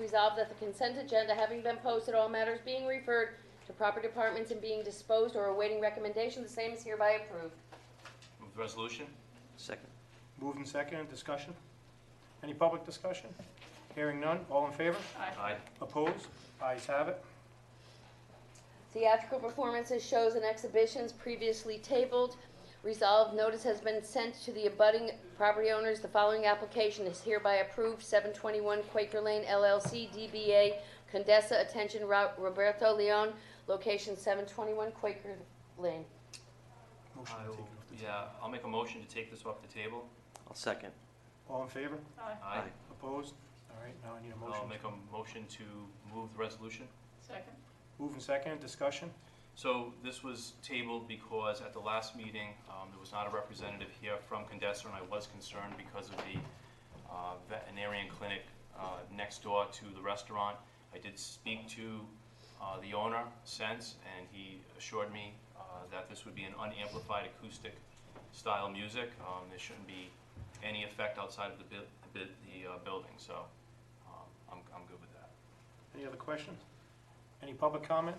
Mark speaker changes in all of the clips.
Speaker 1: resolved that the consent agenda having been posted, all matters being referred to proper departments and being disposed or awaiting recommendation, the same is hereby approved.
Speaker 2: Move the resolution?
Speaker 3: Second.
Speaker 4: Moved and seconded, discussion? Any public discussion? Hearing none, all in favor?
Speaker 2: Aye.
Speaker 4: Opposed? Ayes have it.
Speaker 1: Theatrical performances, shows, and exhibitions previously tabled. Resolved, notice has been sent to the abutting property owners. The following application is hereby approved. 721 Quaker Lane LLC, DBA Condesa Attention Ro- Roberto Leon, location 721 Quaker Lane.
Speaker 4: Motion
Speaker 2: I
Speaker 4: to take it
Speaker 2: will,
Speaker 4: off the table.
Speaker 2: yeah, I'll make a motion to take this off the table.
Speaker 3: I'll second.
Speaker 4: All in favor?
Speaker 2: Aye.
Speaker 4: Opposed? All right, now I need a
Speaker 2: I'll
Speaker 4: motion.
Speaker 2: make a motion to move the resolution.
Speaker 5: Second.
Speaker 4: Moved and seconded, discussion?
Speaker 2: So this was tabled because at the last meeting, um, there was not a representative here from Condesa, and I was concerned because of the uh, veterinarian clinic uh, next door to the restaurant. I did speak to uh, the owner since, and he assured me uh, that this would be an unamplified acoustic style music. Um, There shouldn't be any effect outside of the bu- the bu- the uh, building, so um, I'm I'm good with that.
Speaker 4: Any other questions? Any public comment?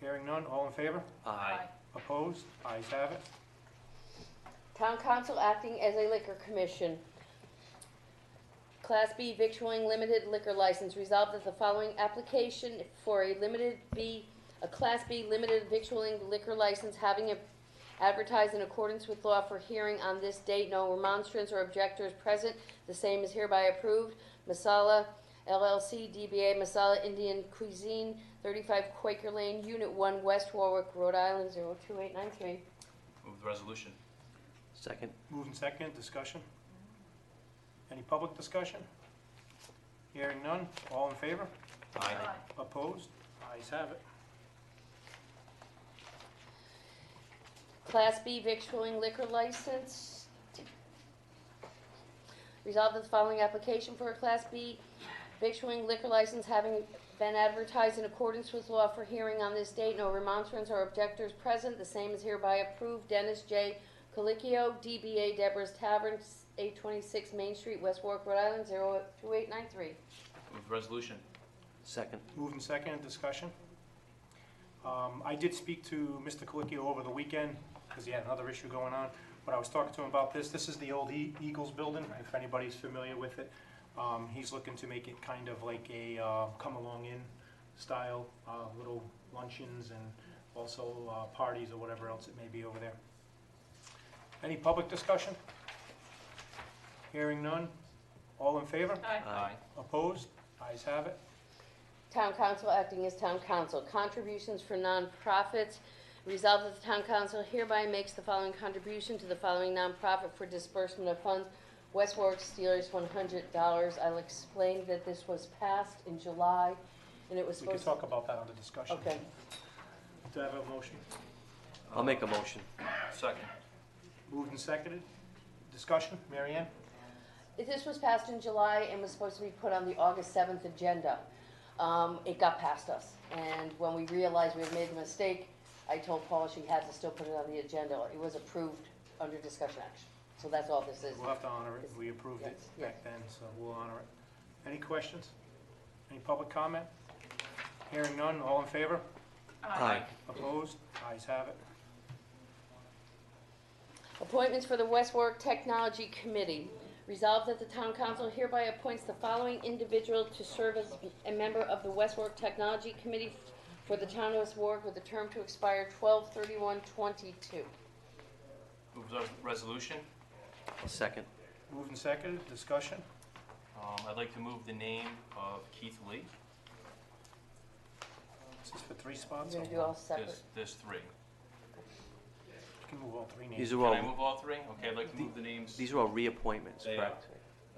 Speaker 4: Hearing none, all in favor?
Speaker 2: Aye.
Speaker 4: Opposed? Ayes have it.
Speaker 1: Town Council acting as a liquor commission. Class B victualling limited liquor license resolved that the following application for a limited B, a Class B limited victualling liquor license having it advertised in accordance with law for hearing on this date, no remonstrance or objectors present, the same is hereby approved. Masala LLC DBA Masala Indian Cuisine, thirty-five Quaker Lane, Unit One, West Warwick, Rhode Island, 02893.
Speaker 2: Move the resolution.
Speaker 3: Second.
Speaker 4: Moved and seconded, discussion? Any public discussion? Hearing none, all in favor?
Speaker 2: Aye.
Speaker 4: Opposed? Ayes have it.
Speaker 1: Class B victualling liquor license. Resolved that the following application for a Class B victualling liquor license having been advertised in accordance with law for hearing on this date, no remonstrance or objectors present, the same is hereby approved. Dennis J. Colicchio, DBA Deborah's Tavern, 826 Main Street, West Warwick, Rhode Island, 02893.
Speaker 2: Move the resolution.
Speaker 3: Second.
Speaker 4: Moved and seconded, discussion? Um, I did speak to Mr. Colicchio over the weekend, because he had another issue going on, but I was talking to him about this. This is the old E- Eagles building, if anybody's familiar with it. Um, He's looking to make it kind of like a uh, come-along-in style, uh, little luncheons and also uh, parties or whatever else it may be over there. Any public discussion? Hearing none. All in favor?
Speaker 3: Aye.
Speaker 4: Opposed? Ayes have it.
Speaker 1: Town council acting as town council. Contributions for nonprofits. Resolved that the town council hereby makes the following contribution to the following nonprofit for disbursement of funds. West Warwick Steelers, one hundred dollars. I'll explain that this was passed in July, and it was
Speaker 4: We can
Speaker 1: supposed. to
Speaker 4: talk about that under discussion.
Speaker 1: Okay.
Speaker 4: Do I have a motion?
Speaker 3: I'll make a motion.
Speaker 2: Second.
Speaker 4: Moved and seconded. Discussion, Mary Ann?
Speaker 1: If This was passed in July and was supposed to be put on the August seventh agenda. Um, it got past us, and when we realized we had made the mistake, I told Paula she had to still put it on the agenda. It was approved under discussion action. So that's all this is.
Speaker 4: We'll have to honor it. We approved it
Speaker 1: Yes,
Speaker 4: back then, so we'll honor it. Any questions? Any public comment? Hearing none, all in favor?
Speaker 3: Aye.
Speaker 4: Opposed? Ayes have it.
Speaker 1: Appointments for the West Warwick Technology Committee. Resolved that the town council hereby appoints the following individual to serve as a member of the West Warwick Technology Committee for the town of West Warwick with a term to expire 12 22
Speaker 2: Move the resolution.
Speaker 3: I'll second.
Speaker 4: Moved and seconded. Discussion,
Speaker 2: Um, I'd like to move the name of Keith Lee.
Speaker 4: this is for three
Speaker 1: I'm
Speaker 4: spots. or
Speaker 1: gonna do
Speaker 4: one?
Speaker 1: all separate.
Speaker 2: There's, there's three.
Speaker 4: You can move all three names.
Speaker 3: These are
Speaker 2: Can I
Speaker 3: all,
Speaker 2: move all three? Okay, I'd like to move the names,
Speaker 3: these are all reappointments,
Speaker 2: They are.
Speaker 3: correct?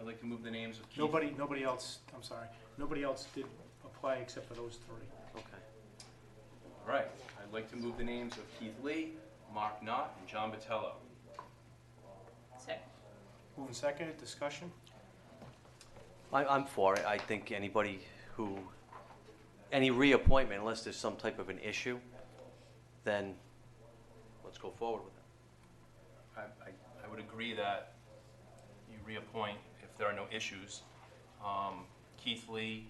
Speaker 2: I'd like to move the names of Keith.
Speaker 4: Nobody, nobody else, I'm sorry, nobody else did apply except for those three.
Speaker 3: Okay.
Speaker 2: All right, I'd like to move the names of Keith Lee, Mark Knott, and John Botello.
Speaker 5: Second.
Speaker 4: Moved and seconded. Discussion,
Speaker 3: I, I'm for it. I think anybody who, any reappointment, unless there's some type of an issue, then let's go forward with it.
Speaker 2: I, I, I would agree that you reappoint if there are no issues. Um, Keith Lee